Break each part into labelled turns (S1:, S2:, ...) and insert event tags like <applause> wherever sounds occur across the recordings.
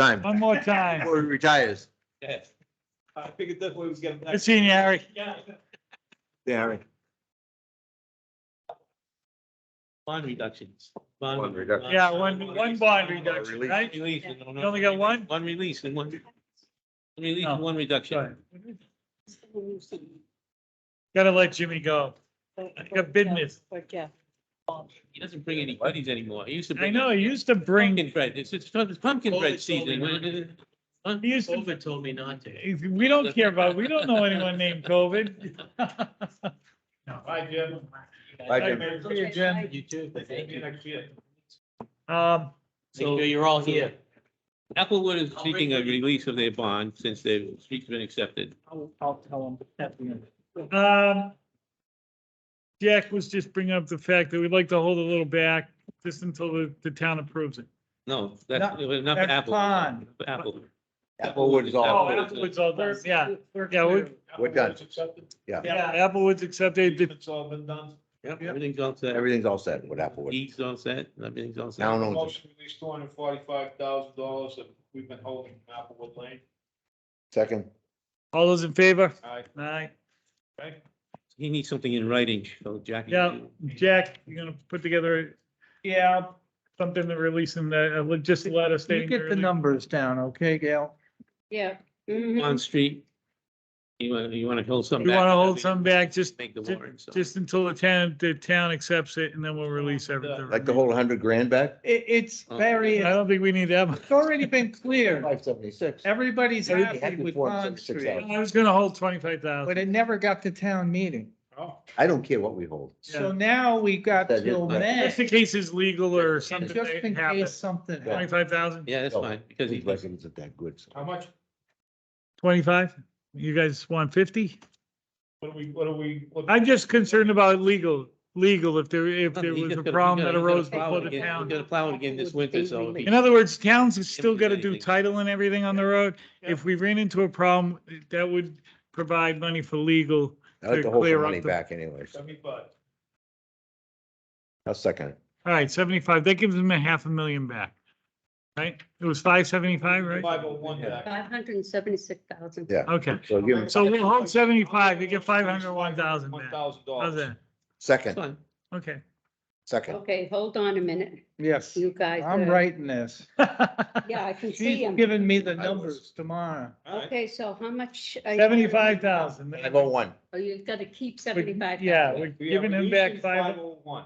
S1: time
S2: One more time.
S1: before he retires.
S3: I figured that way was getting.
S2: Good seeing you, Harry.
S3: Yeah.
S1: Yeah.
S3: Bond reductions.
S1: Bond reduction.
S2: Yeah, one, one bond reduction, right?
S3: Release. and one-
S2: You only got one? Oh.
S3: One release and one. one Release and
S2: No.
S3: one reduction.
S2: Gotta let Jimmy go. got business.
S4: Yeah.
S3: He doesn't bring any goodies anymore. He used to
S2: I
S3: bring.
S2: know, he used to bring,
S3: Pumpkin bread. It's, it's it's pumpkin
S5: Totally
S3: bread season. Huh?
S2: he used to,
S5: COVID told me not to.
S2: we don't care about, we don't know anyone named COVID.
S5: Bye, Jim.
S1: Bye, Jim.
S2: See you, Jim.
S5: You too.
S3: Thank you.
S5: next year.
S2: Um,
S3: So-
S5: So you're all here.
S3: uh, Applewood is
S5: I'll
S3: seeking
S5: bring
S3: a
S5: them.
S3: release of their bond since their street's been accepted.
S5: I'll, I'll tell them.
S2: um, Jack was just bringing up the fact that we'd like to hold a little back just until the, the town approves it.
S3: No, that's enough
S2: that's
S3: Applewood.
S2: fine.
S3: Applewood.
S1: Applewood is all.
S2: Oh,
S3: Applewood.
S2: Applewood's all there, yeah, yeah, we-
S1: We're done.
S2: yeah, Applewood's accepted.
S5: It's all been done.
S3: Yep, everything's all
S1: <laughs>
S3: set.
S1: Everything's all set with Applewood.
S3: Deeds all set. Everything's all set.
S1: Town owns it.
S5: Motion released two hundred forty-five thousand dollars that we've been holding from Applewood Lane.
S1: Second.
S2: All those in favor?
S5: Aye.
S2: Aye.
S5: Okay.
S3: He needs something in writing, so Jackie.
S2: Yeah, Jack, you're gonna put together
S6: Yeah,
S2: something to release in the, uh, just a letter
S6: you
S2: stating.
S6: get the
S2: early-
S6: numbers down, okay, Gail?
S4: Yeah. Mm-hmm.
S3: On street. You want, you want to hold some
S2: You
S3: back.
S2: wanna hold some back, just,
S3: Make the
S2: ju-
S3: warrant, so.
S2: just until the town, the town accepts it and then we'll release everything.
S1: Like the whole hundred grand back?
S6: It, it's very,
S2: I don't think we need that much.
S6: it's already been cleared.
S1: Oh. Five seventy-six.
S6: Everybody's
S1: Everybody
S6: happy
S1: happy
S6: with
S1: for it,
S6: Bond
S1: except
S6: Street,
S1: Sal.
S2: I was gonna hold twenty-five
S6: but
S2: thousand.
S6: it never got to town meeting.
S5: Oh,
S1: I don't care what we hold.
S6: So now we got
S1: That is
S6: till
S1: right.
S6: May,
S2: Just in case it's legal or
S6: just
S2: something
S6: in case
S2: happens,
S6: something happens.
S2: twenty-five thousand,
S3: Yeah, that's
S1: Oh,
S3: fine, because he,
S1: His record isn't that good. so.
S5: how much,
S2: twenty-five? You guys want fifty?
S5: what do we, what do we? what-
S2: I'm just concerned about legal, legal, if there,
S3: <laughs>
S2: if
S3: No,
S2: there
S3: you
S2: was a
S3: gotta- you
S2: problem that
S3: gotta- you
S2: arose
S3: gotta plow
S2: before
S3: it
S2: the
S3: again. You
S2: town.
S3: gotta plow it again this winter, so.
S2: In other words, towns have still gotta do
S3: anything.
S2: title and everything on the road. If we ran into a problem, that would provide money for legal.
S1: I like
S2: To
S1: to hold
S2: clear
S1: some
S2: up
S1: money
S2: the-
S1: back anyways.
S5: Seventy-five.
S1: I'll second it.
S2: All right, seventy-five, that gives them a half a million back, right? It was five seventy-five, right?
S5: Five oh one back. oh
S4: Five hundred and seventy-six thousand.
S1: Yeah.
S2: Okay,
S1: So give him
S2: so we'll hold seventy-five, you get five hundred one thousand
S5: One
S2: back.
S5: thousand
S2: How's
S5: dollars.
S2: that?
S3: That's
S1: second,
S3: fine.
S2: Okay.
S1: second.
S4: Okay, hold on a minute,
S6: Yes,
S4: you guys.
S6: I'm
S4: are-
S6: writing this.
S2: <laughs>
S4: Yeah, I can see
S6: She's
S4: them.
S6: giving me the
S1: I was.
S6: numbers tomorrow.
S4: Okay, so how much? are you-
S2: Seventy-five thousand.
S1: Five oh one.
S4: Oh, you've got to keep seventy-five.
S2: Yeah, we're giving him back five.
S5: Five oh one,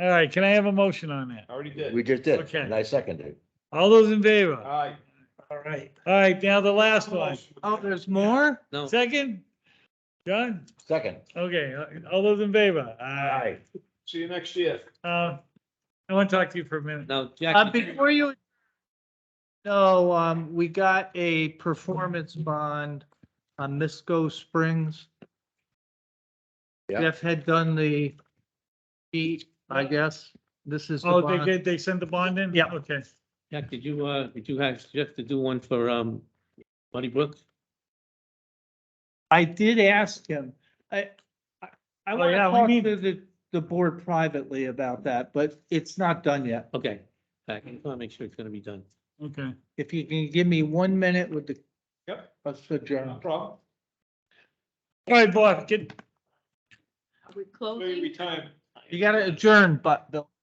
S2: All right, can I have a motion on that?
S5: already did.
S1: We just did.
S2: Okay.
S1: And I seconded it.
S2: All those in favor?
S5: Aye.
S6: All right.
S2: All right, now the last one.
S6: Oh, there's more?
S3: No,
S2: Second? John?
S1: Second.
S2: Okay, uh, all those in favor? Aye.
S5: See you next year.
S2: Uh, I want to talk to you for a minute.
S3: no,
S6: Uh,
S3: Jackie,
S6: before you. No, um, we got a performance bond on Misco Springs.
S1: Yeah.
S6: Jeff had done the beat, I guess. This is. the
S2: Oh, they
S6: bond.
S2: did, they sent the bond in?
S6: Yeah.
S2: Okay.
S3: Jack, did you, uh, did you have, Jeff to do one for, um, Buddy Brook?
S6: I did ask him. I, I- I
S2: Oh,
S6: want to
S2: yeah, we
S6: talk
S2: need-
S6: to the, the board privately about that, but it's not done yet.
S3: Okay, I just want to make sure it's gonna be done.
S2: Okay.
S6: If you can give me one minute with the.
S5: Yep.
S6: Let's adjourn.
S5: No problem.
S2: All right, boy, get,
S4: Are we
S5: Maybe
S4: closing?
S5: retirement.
S6: You gotta adjourn, but, Bill.